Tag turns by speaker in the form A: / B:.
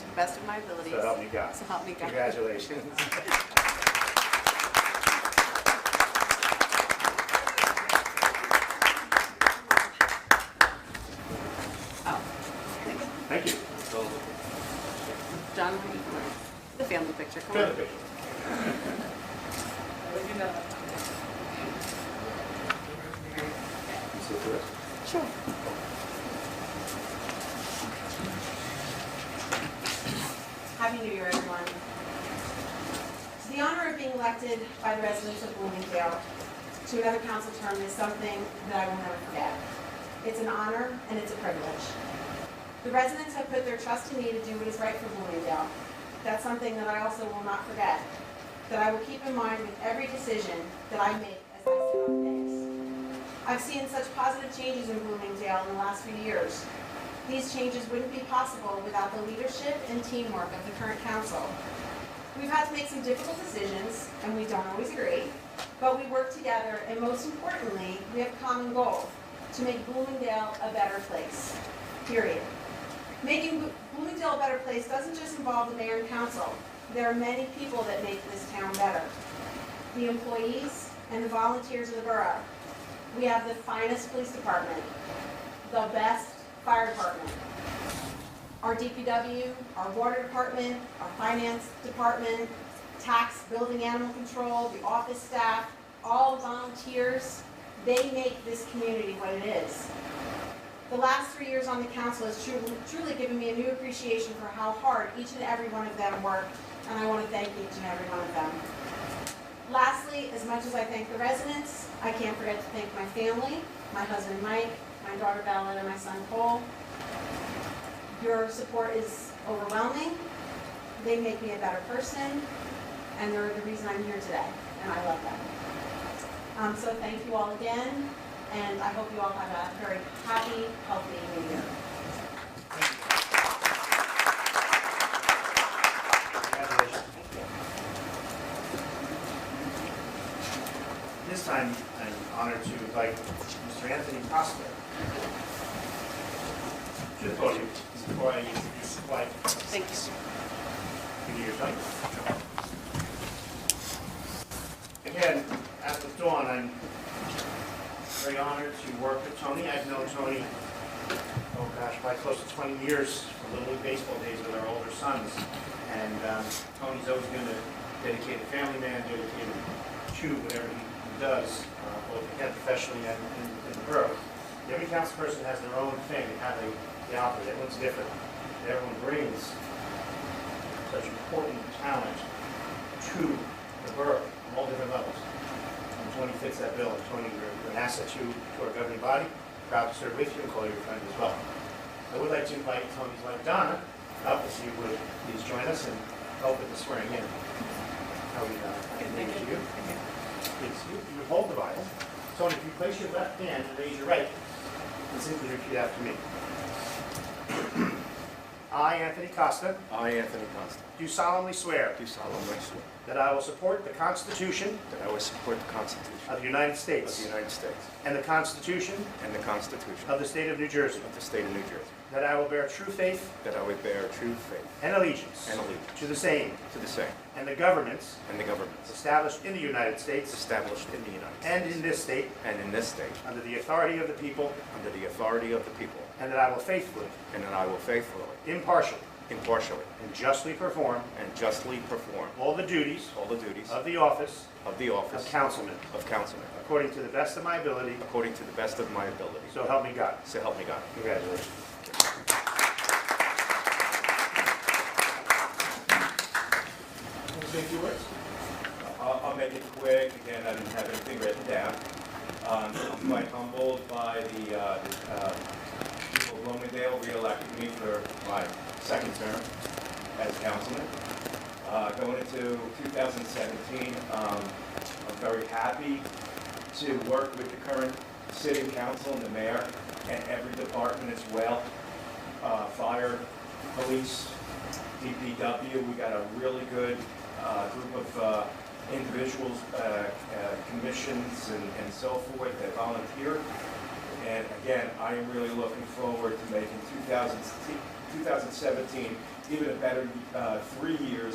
A: the best of my abilities.
B: So help me God.
A: So help me God.
B: Congratulations.
A: Oh,
B: Thank you.
A: John, the family picture, come on.
B: Good. You sit first.
A: Sure.
C: Happy New Year, everyone. The honor of being elected by the residents of Bloomingdale to another council term is something that I will never forget. It's an honor and it's a privilege. The residents have put their trust in me to do what is right for Bloomingdale. That's something that I also will not forget, that I will keep in mind with every decision that I make as I sit on things. I've seen such positive changes in Bloomingdale in the last few years, these changes wouldn't be possible without the leadership and teamwork of the current council. We've had to make some difficult decisions, and we don't always agree, but we work together, and most importantly, we have a common goal, to make Bloomingdale a better place, period. Making Blo- Bloomingdale a better place doesn't just involve the mayor and council. There are many people that make this town better. The employees and the volunteers of the borough. We have the finest police department, the best fire department. Our DPW, our water department, our finance department, tax, building animal control, the office staff, all volunteers, they make this community what it is. The last three years on the council has truly, truly given me a new appreciation for how hard each and every one of them work, and I want to thank each and every one of them. Lastly, as much as I thank the residents, I can't forget to thank my family, my husband Mike, my daughter Bella, and my son Cole. Your support is overwhelming. They make me a better person, and they're the reason I'm here today, and I love them. Um, so thank you all again, and I hope you all have a very happy, healthy new year.
B: Congratulations. This time, I'm honored to invite Mr. Anthony Costa to the podium before I introduce his wife.
A: Thank you.
B: Give you your thing. Again, as with Dawn, I'm very honored to work with Tony. I've known Tony, oh gosh, probably close to 20 years, from Little League Baseball days with our older sons. And um, Tony's always been a dedicated family man, dedicated to whatever he does, uh, both again professionally and in- in the borough. Every council person has their own thing, and how they, they operate. Everyone's different. Everyone brings such important talent to the borough on all different levels. And Tony fits that bill. Tony, you're you're an asset to, to our governing body. Proud to serve with you and call you a friend as well. I would like to invite Tony's wife Donna up if she would please join us and help with the swearing in. How are we, uh, Donna? Thank you. Please, you you would hold the Bible. Tony, if you place your left hand and raise your right, and simply repeat after me. I, Anthony Costa,
D: I, Anthony Constant,
B: do solemnly swear
D: do solemnly swear
B: That I will support the Constitution
D: that I will support the Constitution
B: of the United
D: of the
B: States
D: United States
B: and the Constitution
D: and the Constitution
B: of the State of New Jersey,
D: of the State of New Jersey,
B: that I will bear true faith
D: that I will bear true faith
B: and allegiance
D: and allegiance
B: to the same
D: to the same
B: and the governments
D: and the governments
B: established in the United States
D: established in the United States
B: and in this state
D: and in this state
B: under the authority of the people,
D: under the authority of the people,
B: and that I will faithfully,
D: and that I will faithfully,
B: impartially,
D: impartially,
B: and justly perform
D: and justly perform
B: all the duties
D: all the duties
B: of the office
D: of the
B: of
D: office
B: councilman
D: of councilman
B: according to the best of my ability,
D: according to the best of my ability.
B: so help me God.
D: So help me God.
B: Congratulations.
E: I'll, I'll make it quick, again, I didn't have anything written down. Um, I'm quite humbled by the, uh, the, uh, people of Bloomingdale reelected me for my second term as councilman. Uh, going into 2017, um, I'm very happy to work with the current city council and the mayor and every department as well. Uh, fire, police, DPW, we got a really good uh, group of uh, individuals, uh, uh, commissions and and so forth that volunteer. And again, I am really looking forward to making 2017 even a better uh, three years.